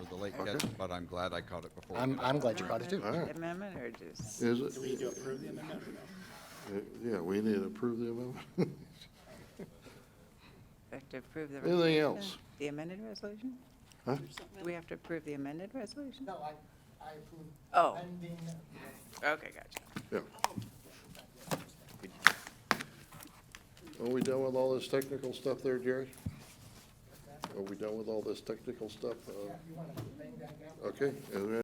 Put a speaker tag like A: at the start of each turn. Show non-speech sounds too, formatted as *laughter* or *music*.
A: late catch, but I'm glad I caught it before.
B: I'm, I'm glad you brought it too.
C: All right.
D: Amendment or just?
C: Is
E: Do we
C: it,
E: need to approve the amendment or no?
C: uh, yeah, we need to approve the amendment. *laughs*
D: We have to approve the.
C: Anything
D: resolution?
C: else?
D: The amended resolution?
C: Huh?
D: Do we have to approve the amended resolution?
F: No, I, I approve
D: Oh,
F: pending.
D: okay, gotcha.
C: Yeah. Are we done with all this technical stuff there, Jerry? Are we done with all this technical stuff? Uh, Okay, is there